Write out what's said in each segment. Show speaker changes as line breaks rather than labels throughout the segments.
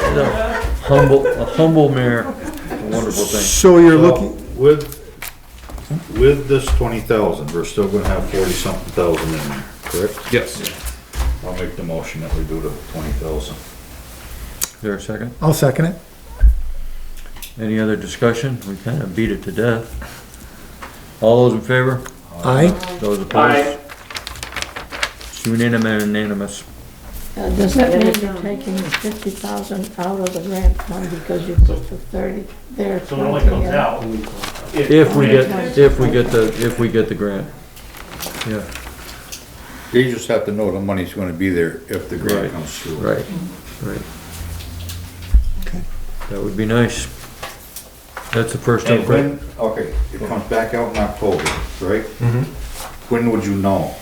No. Humble, a humble mayor, a wonderful thing.
So you're
So,
looking,
With, with this twenty thousand, we're still gonna have forty something thousand in there, correct?
Yes.
I'll make the motion that we do the twenty thousand.
Is there a second?
I'll second it.
Any other discussion? We kind of beat it to death. All those in favor?
Aye.
Those opposed? It's unanimous, unanimous.
Uh, Does that mean you're taking the fifty thousand out of the grant fund because you put the thirty there?
So it only comes out.
If we get, if we get the, if we get the grant. Yeah,
You just have to know the money's gonna be there if the
Right.
grant comes through.
right, right. That would be nice. That's the first
And
time.
when, okay, it comes back out in October, right? When would you know?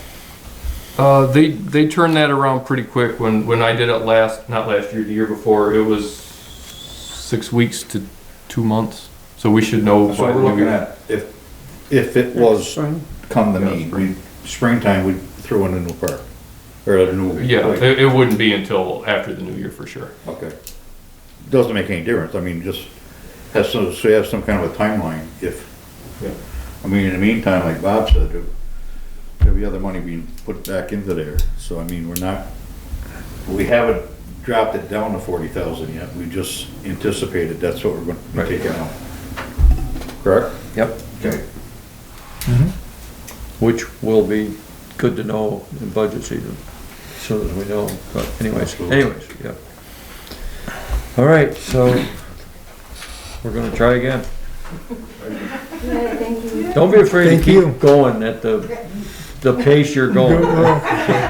Uh, they, they turned that around pretty quick. When, when I did it last, not last year, the year before, it was six weeks to two months. So we should know.
So
by
we're
when we-
looking at, if, if it was come to me, we, springtime, we throw in a new park, or a new.
Yeah,
like-
it, it wouldn't be until after the new year for sure.
Okay. Doesn't make any difference, I mean, just has some, so you have some kind of a timeline if, I mean, in the meantime, like Bob said, there- there'll be other money being put back into there, so I mean, we're not, we haven't dropped it down to forty thousand yet, we just anticipated that's what we're gonna take out. Correct?
Yep.
Okay.
Mm-hmm.
Which will be good to know in budget season, as soon as we know, but anyways, anyways, yeah. All right, so we're gonna try again. Don't be afraid to
Thank you.
keep going at the, the pace you're going.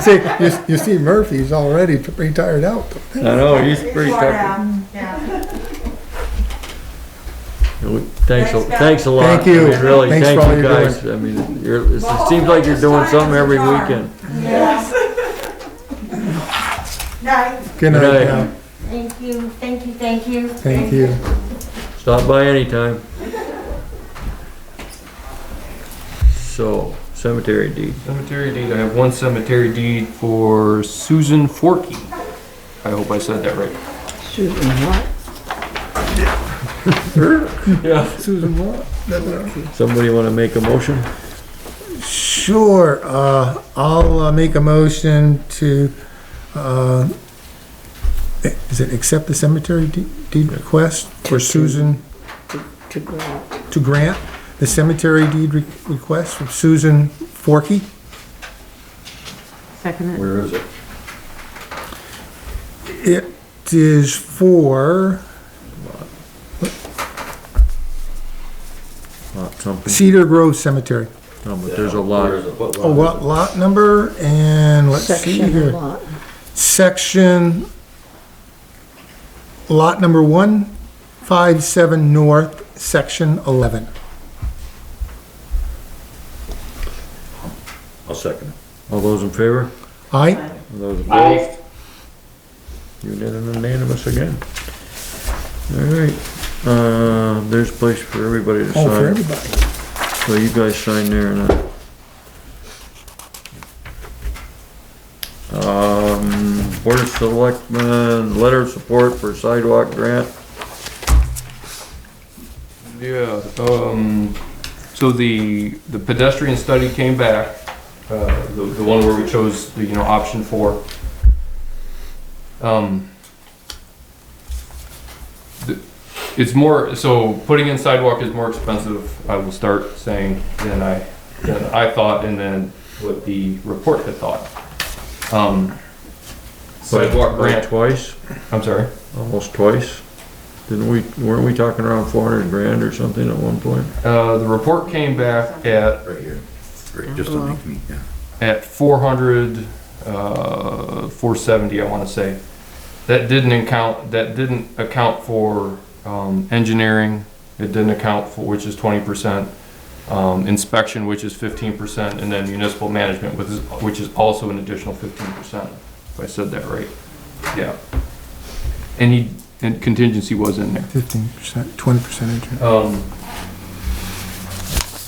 See, you, you see Murphy's already pretty tired out.
I know, he's pretty
Short
tough.
out, yeah.
Thanks, a- thanks a lot.
Thank you.
I mean, Really,
Thanks for
thank
all
you
you're doing.
guys. I mean, you're, it seems like you're doing something every weekend.
Night.
Good
Good
night
night.
now.
Thank you, thank you, thank you.
Thank you.
Stop by anytime. So, cemetery deed.
Cemetery deed, I have one cemetery deed for Susan Forkey. I hope I said that right.
Susan,
Mm-hmm.
what?
Susan, what?
Somebody wanna make a motion?
Sure, uh, I'll uh, make a motion to, uh, is it accept the cemetery de- deed request for Susan
To grant.
to grant? The cemetery deed re- request from Susan Forkey?
Second
Where is it?
It is for
Lot something,
Cedar Grove Cemetery.
no, but there's a lot.
Oh, what lot number and let's see
Section of
here.
lot.
Section, lot number one, five, seven north, section eleven.
I'll second
All those in favor?
Aye,
Those opposed? Unanim- Unanimous again. All right, uh, there's a place for everybody to
all Oh, for
sign.
everybody.
So you guys sign there and uh, I. Um, Board of Selectmen, letter of support for sidewalk grant.
Yeah, um, so the, the pedestrian study came back, uh, the, the one where we chose the, you know, option four. Um, the- it's more, so putting in sidewalk is more expensive, I will start saying, than I, than I thought, and then what the report had thought. Um, sidewalk grant,
Twice,
I'm sorry.
almost twice. Didn't we, weren't we talking around four hundred grand or something at one point?
Uh, the report came back at
it, right here, Right, just
Oh,
to make me, yeah.
at 400, uh, 470, I want to say. That didn't account, that didn't account for, um, engineering, it didn't account for, which is 20%, um, inspection, which is 15%, and then municipal management, which is, which is also an additional 15%, if I said that right. Yeah. And he, and contingency was in there.
Fifteen percent, twenty percent
Um,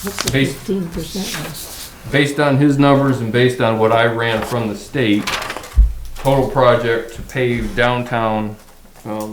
What's the
Base-
fifteen percent?
based on his numbers and based on what I ran from the state, total project to pave downtown, um,